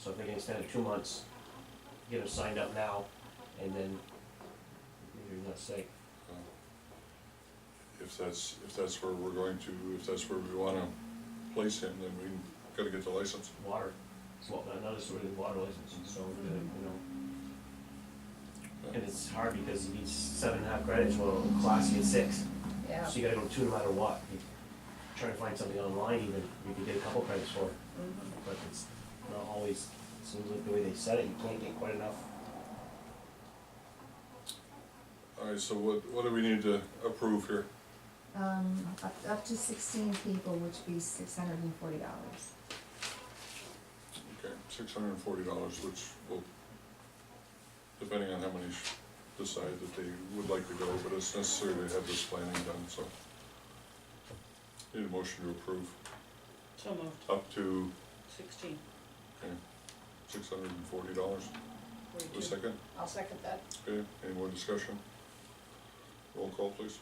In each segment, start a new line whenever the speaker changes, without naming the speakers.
So I'm thinking instead of two months, get them signed up now, and then, you're not safe.
If that's, if that's where we're going to, if that's where we wanna place him, then we gotta get the license.
water, well, another sort of water license, and so, uh, you know. And it's hard because you need seven and a half credits, well, in class you get six,
yeah.
so you gotta go two no matter what. You Try to find something online even, you could get a couple credits for it,
Mhm.
but it's not always, seems like the way they said it, you can't get quite enough.
Alright, so what, what do we need to approve here?
Um, up, up to sixteen people, which would be six hundred and forty dollars.
Okay, six hundred and forty dollars, which will, depending on how many sh- decide that they would like to go, but it's necessary to have this planning done, so. Need a motion to approve
So moved,
up to
sixteen,
six hundred and forty dollars, a
forty-two.
second,
I'll second that.
okay, any more discussion? Roll call, please.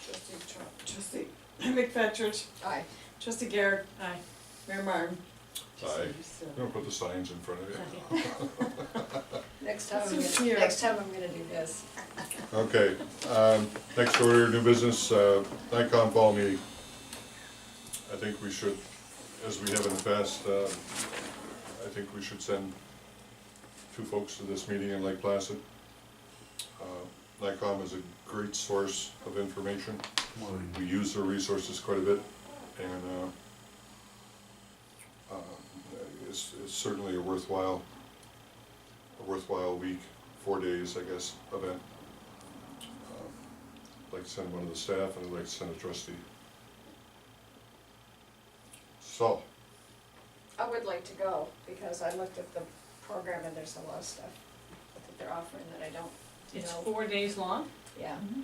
Trustee Trump, trustee McFetrich,
Aye.
trustee Garrett,
Aye.
Mayor Martin.
Aye.
So-
I'm gonna put the signs in front of you.
Next time, I'm
This is
gonna,
here.
next time I'm gonna do this.
Okay, um, next order, new business, uh, Nikon fall meeting. I think we should, as we have in the past, uh, I think we should send two folks to this meeting in Lake Placid. Uh, Nikon is a great source of information. We use their resources quite a bit and, uh, uh, it's, it's certainly a worthwhile, a worthwhile week, four days, I guess, event. I'd like to send one of the staff, and I'd like to send a trustee. So,
I would like to go, because I looked at the program and there's a lot of stuff that they're offering that I don't
It's
know.
four days long?
Yeah,
Mm-hmm.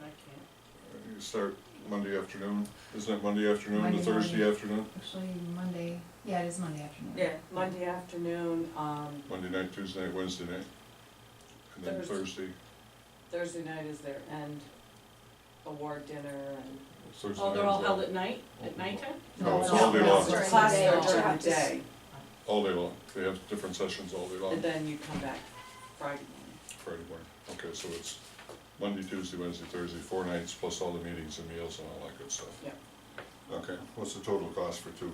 I can't.
you start Monday afternoon, isn't it Monday afternoon,
Monday
the Thursday
morning.
afternoon,
Actually, Monday, yeah, it is Monday afternoon.
Yeah, Monday afternoon, um,
Monday night, Tuesday night, Wednesday night? And then Thursday,
Thursday. Thursday night is their end award dinner and.
Thursday
Oh,
night
they're all
as well.
held at night, at nighttime?
No, it's
No,
all day
no,
long,
it's during the
Classes
day.
are
You
during
have
the
to s-
day,
all day long, they have different sessions all day long,
and then you come back Friday morning.
Friday morning, okay, so it's Monday, Tuesday, Wednesday, Thursday, four nights, plus all the meetings and meals and all that good stuff.
Yeah.
Okay, what's the total cost for two?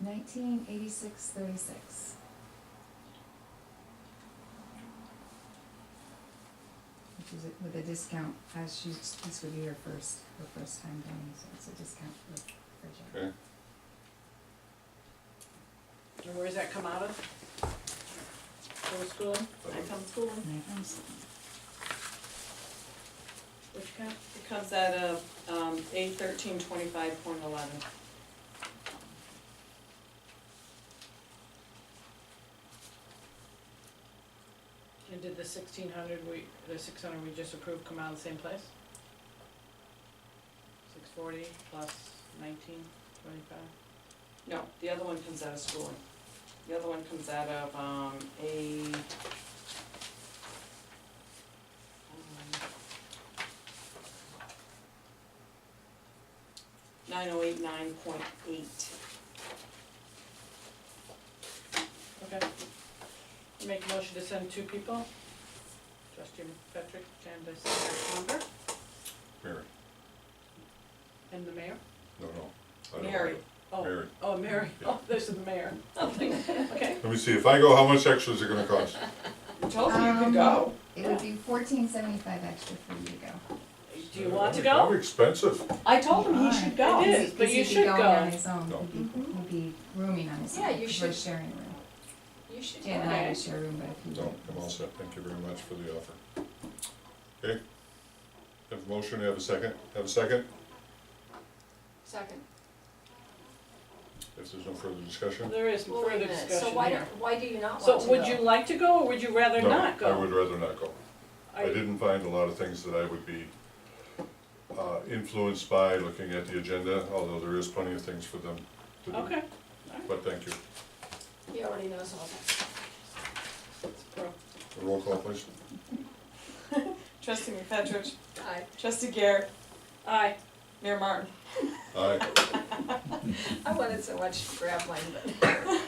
Nineteen eighty-six thirty-six. Which is a- with a discount, as she's, this would be her first, her first time going, so it's a discount for, for Jack.
Okay,
and where does that come out of?
Go to school, I come to school,
And I- I'm s-
which comes, it comes out of, um, eight thirteen twenty-five point eleven.
And did the sixteen hundred we, the six hundred we just approved come out of the same place? Six forty plus nineteen twenty-five?
No, the other one comes out of schooling. The other one comes out of, um, a. um, um, Nine oh eight nine point eight.
Okay. I Make a motion to send two people. Trustee McFetrich and the secretary Conger
Mary,
and the mayor?
no, no. I don't
Mary.
know.
Oh,
Mary.
oh, Mary, oh, this is the mayor. Okay,
Let me see, if I go, how much extra is it gonna cost?
I told Oh, you you
Um,
could go.
It would be fourteen seventy-five extra for you to go.
Do you want to go?
Probably expensive.
I told him he
Fine.
should go.
It is.
Because
but you
he'd be
should
going
go.
on his own,
No.
he'd be, he'd be rooming on his own,
Yeah, you
'cause we're
should-
sharing a room.
You should
Jan and I
go.
would share a room, but if you.
No, I'm all set, thank you very much for the offer. Okay, have a motion, have a second, have a second,
Second.
if there's no further discussion.
there is
Well, wait a
further
minute,
discussion
so why
here.
don't, why do you not want to go?
So would you like to go or would you rather
No,
not go?
I would rather not go. I
Are-
didn't find a lot of things that I would be uh, influenced by looking at the agenda, although there is plenty of things for them to do.
Okay,
But thank you.
He already knows all that.
Roll call, please.
Trustee McFetrich,
Aye.
trustee Garrett,
aye.
Mayor Martin.
Aye.
I wanted so much to grab mine, but.